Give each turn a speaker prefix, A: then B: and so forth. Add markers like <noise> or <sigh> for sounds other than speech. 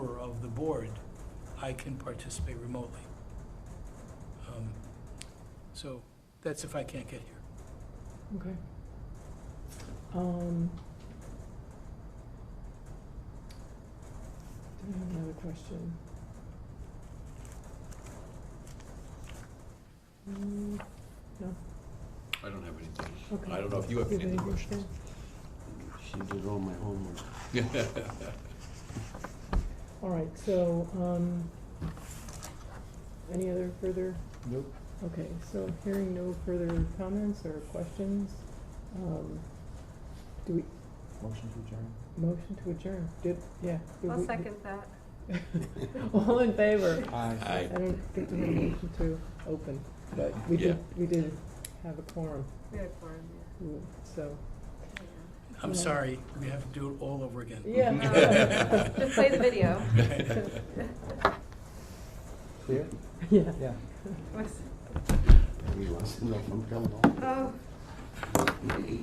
A: board, I can participate remotely. Um, So that's if I can't get here.
B: Okay. Um. Do I have another question? Mm,
C: I don't have anything.
B: okay.
C: I don't know if you have
B: Do
C: any other
B: anything,
C: questions.
D: She did all my
C: <laughs>
D: homework.
B: Phil? All right, so, um, any other further,
D: Nope.
B: okay, so hearing no further comments or questions, um, do we,
D: Motion to adjourn?
B: motion to adjourn, did, yeah. did
E: I'll
B: we-
E: second that.
B: <laughs> All in favor?
D: Aye.
B: I don't think we had a motion to open, but we did, we did have a quorum,
E: We had quorum, yeah.
B: mm, so,
E: Yeah.
A: I'm
B: Yeah.
A: sorry, we have to do it all over again.
B: <laughs> yeah.
E: Just play the video.
D: Clear?
B: Yeah.
D: Yeah.
E: What's-
D: <laughs> He wants to know if I'm coming home.
E: Oh,